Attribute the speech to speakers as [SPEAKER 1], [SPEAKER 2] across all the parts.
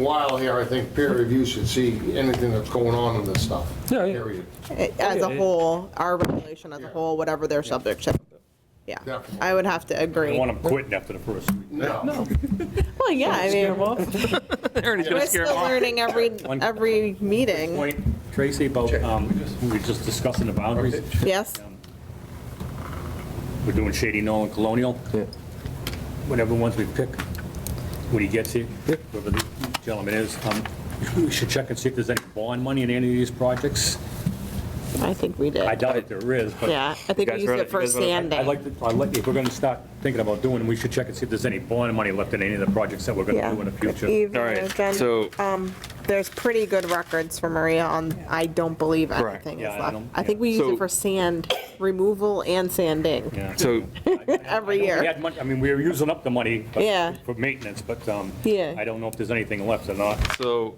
[SPEAKER 1] while here, I think peer review should see anything that's going on in this stuff.
[SPEAKER 2] Yeah, yeah.
[SPEAKER 1] Period.
[SPEAKER 3] as a
[SPEAKER 2] Okay.
[SPEAKER 3] whole, our regulation as a whole, whatever their subject to. Yeah,
[SPEAKER 1] Definitely.
[SPEAKER 3] I would have to
[SPEAKER 4] I
[SPEAKER 3] agree.
[SPEAKER 4] want them quitting after the first week.
[SPEAKER 1] No.
[SPEAKER 3] Well, yeah, I mean,
[SPEAKER 2] Ernie's
[SPEAKER 3] we're still learning every,
[SPEAKER 4] One-
[SPEAKER 3] every meeting.
[SPEAKER 4] Point, Tracy, about, um, we were just discussing the boundaries.
[SPEAKER 3] Yes,
[SPEAKER 4] We're doing Shady Knoll and Colonial. Whatever ones we pick, when he gets here, whoever the gentleman is, um, we should check and see if there's any bond money in any of these projects.
[SPEAKER 3] I think we
[SPEAKER 4] I
[SPEAKER 3] did.
[SPEAKER 4] doubt it there is, but.
[SPEAKER 3] Yeah, I think
[SPEAKER 5] guys
[SPEAKER 3] we used
[SPEAKER 5] really-
[SPEAKER 3] it for
[SPEAKER 5] you guys really- I-
[SPEAKER 4] I'd
[SPEAKER 3] sanding.
[SPEAKER 4] like to, I'd like, if we're gonna start thinking about doing, we should check and see if there's any bond money left in any of the projects that we're gonna
[SPEAKER 3] Yeah.
[SPEAKER 4] do in the future.
[SPEAKER 3] Even
[SPEAKER 5] All right,
[SPEAKER 3] then,
[SPEAKER 5] so-
[SPEAKER 3] um, There's pretty good records for Maria on, I don't believe
[SPEAKER 5] Correct.
[SPEAKER 3] anything is
[SPEAKER 4] Yeah, I
[SPEAKER 3] left.
[SPEAKER 4] don't-
[SPEAKER 3] I think we use
[SPEAKER 5] So-
[SPEAKER 3] it for sand removal and sanding
[SPEAKER 4] Yeah.
[SPEAKER 5] So,
[SPEAKER 3] every
[SPEAKER 4] We
[SPEAKER 3] year.
[SPEAKER 4] had money, I mean, we were using up the money but-
[SPEAKER 3] Yeah.
[SPEAKER 4] for maintenance, but um,
[SPEAKER 3] Yeah.
[SPEAKER 4] I don't know if there's anything left or not.
[SPEAKER 5] so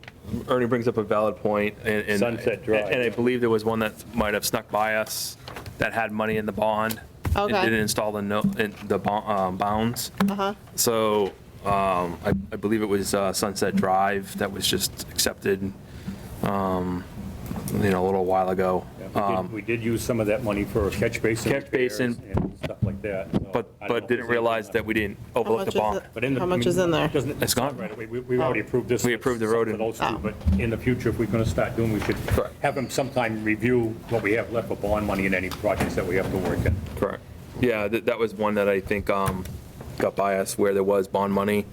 [SPEAKER 5] Ernie brings up a valid point, and. and-
[SPEAKER 4] Sunset Drive.
[SPEAKER 5] And I believe there was one that might have snuck by us that had money in the bond.
[SPEAKER 3] Okay.
[SPEAKER 5] And didn't install the, no- in the bo- um, bounds.
[SPEAKER 3] Uh-huh.
[SPEAKER 5] So um, I I believe it was uh, Sunset Drive that was just accepted, um, you know, a little while ago.
[SPEAKER 4] Yeah, we did-
[SPEAKER 5] Um,
[SPEAKER 4] We did use some of that money for catch basin.
[SPEAKER 5] Catch
[SPEAKER 4] repairs
[SPEAKER 5] basin.
[SPEAKER 4] And stuff like that. so
[SPEAKER 5] But,
[SPEAKER 4] I don't know if
[SPEAKER 5] but didn't
[SPEAKER 4] there's
[SPEAKER 5] realize
[SPEAKER 4] anything
[SPEAKER 5] that we didn't overlook
[SPEAKER 3] much
[SPEAKER 5] the
[SPEAKER 3] is
[SPEAKER 5] bond.
[SPEAKER 3] it?
[SPEAKER 4] But in the-
[SPEAKER 3] How much is in there?
[SPEAKER 4] doesn't-
[SPEAKER 5] It's gone.
[SPEAKER 4] Right, we- We we already approved this.
[SPEAKER 5] We approved the road
[SPEAKER 4] For
[SPEAKER 5] and-
[SPEAKER 4] those two,
[SPEAKER 3] Oh.
[SPEAKER 4] but in the future, if we're going to start doing, we should
[SPEAKER 5] Correct.
[SPEAKER 4] have them sometime review what we have left for bond money in any projects that we have to work in.
[SPEAKER 5] Correct. Yeah, that, that was one that I think um, got by us where there was bond money,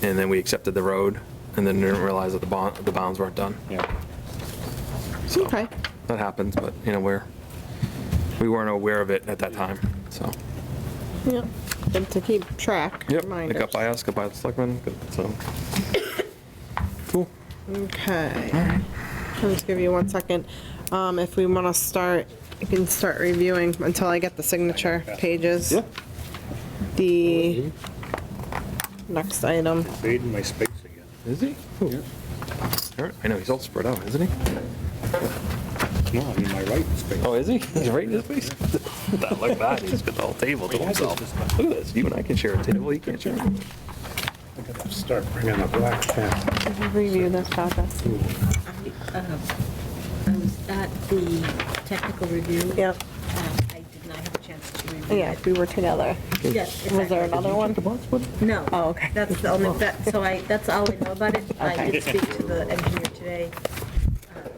[SPEAKER 5] and then we accepted the road, and then didn't realize that the bond, the bounds weren't done.
[SPEAKER 4] Yeah.
[SPEAKER 5] So,
[SPEAKER 3] Okay,
[SPEAKER 5] That happens, but, you know, we're, we weren't aware of it at that time, so.
[SPEAKER 3] yeah, good to keep track,
[SPEAKER 5] Yep, it
[SPEAKER 3] reminders.
[SPEAKER 5] got by us, got by the selectmen, got- so. Cool.
[SPEAKER 3] Okay. I'll just give you one second. Um, if we want to start, you can start reviewing until I get the signature pages. The next item.
[SPEAKER 4] Fading my space again.
[SPEAKER 5] Is he? Who? Alright, I know, he's all spread out, isn't he?
[SPEAKER 4] No, I mean, my right space.
[SPEAKER 5] Oh, is he? He's right in his face. That look bad, he's got the whole table to
[SPEAKER 4] Wait, I just-
[SPEAKER 5] himself. Look at this, you and I can share a table, he can't share one.
[SPEAKER 4] Start bringing the black pen.
[SPEAKER 3] Review this process.
[SPEAKER 6] I um, I was at the technical review.
[SPEAKER 3] Yep.
[SPEAKER 6] Um, I did not have a chance to review.
[SPEAKER 3] Yeah,
[SPEAKER 6] it.
[SPEAKER 3] we were together.
[SPEAKER 6] Yes.
[SPEAKER 3] Was there
[SPEAKER 6] exactly.
[SPEAKER 3] another one?
[SPEAKER 6] No.
[SPEAKER 3] Oh, okay.
[SPEAKER 6] That's the only, that, so I, that's all I know about it. I
[SPEAKER 3] Okay.
[SPEAKER 6] did speak to the engineer today, uh,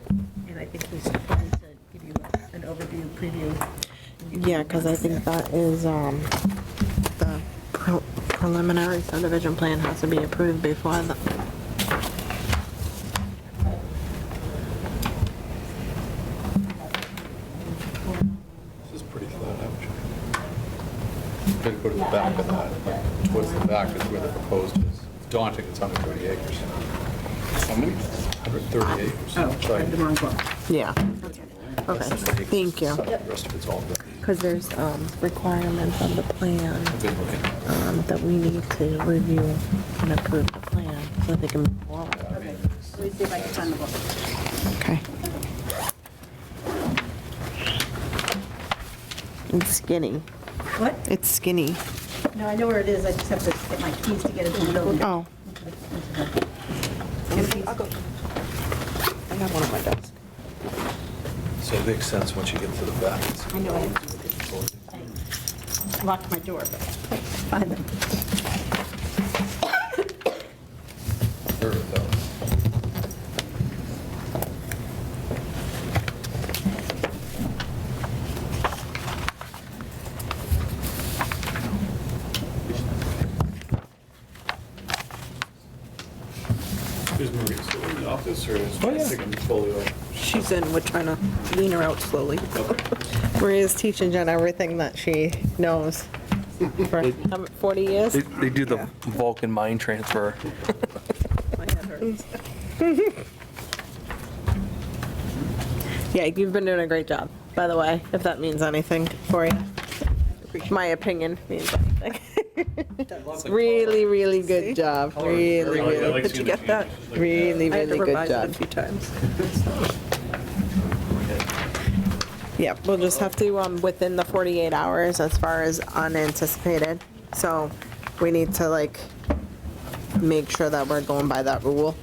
[SPEAKER 6] and I think he's going to give you an overview, preview.
[SPEAKER 3] Yeah, because I think that is, um, the pre- preliminary subdivision plan has to be approved before the.
[SPEAKER 1] This is pretty flat out. Gotta go to the back of that, towards the back is where the proposed is. It's Daunting, it's 130 acres. How many? 130 acres.
[SPEAKER 6] Oh, I had the wrong one.
[SPEAKER 3] Yeah. Okay, thank you.
[SPEAKER 1] The rest of it's all building.
[SPEAKER 3] Because there's um, requirements on the plan um, that we need to review and approve the plan so they can move forward.
[SPEAKER 6] Let me see if I can find the book.
[SPEAKER 3] Okay. It's skinny.
[SPEAKER 6] What?
[SPEAKER 3] It's skinny.
[SPEAKER 6] No, I know where it is, I just have to get my keys to get into the building.
[SPEAKER 3] Oh, I have one on my desk.
[SPEAKER 1] So it makes sense once you get to the back.
[SPEAKER 6] I know I I locked my door, but I find them.
[SPEAKER 7] Is Maria still in the office or is
[SPEAKER 2] Oh, yeah.
[SPEAKER 7] Jessica in folio?
[SPEAKER 3] She's in, we're trying to lean her out slowly. Maria's teaching Jen everything that she knows for how- 40 years.
[SPEAKER 5] They, they do the Vulcan mind transfer.
[SPEAKER 3] Yeah, you've been doing a great job, by the way, if that means anything for you. My opinion means anything. Really, really good job, really, really,
[SPEAKER 7] Did you get that?
[SPEAKER 3] really, really good job. Yeah, we'll just have to, um, within the 48 hours as far as unanticipated. So we need to like make sure that we're going by that rule.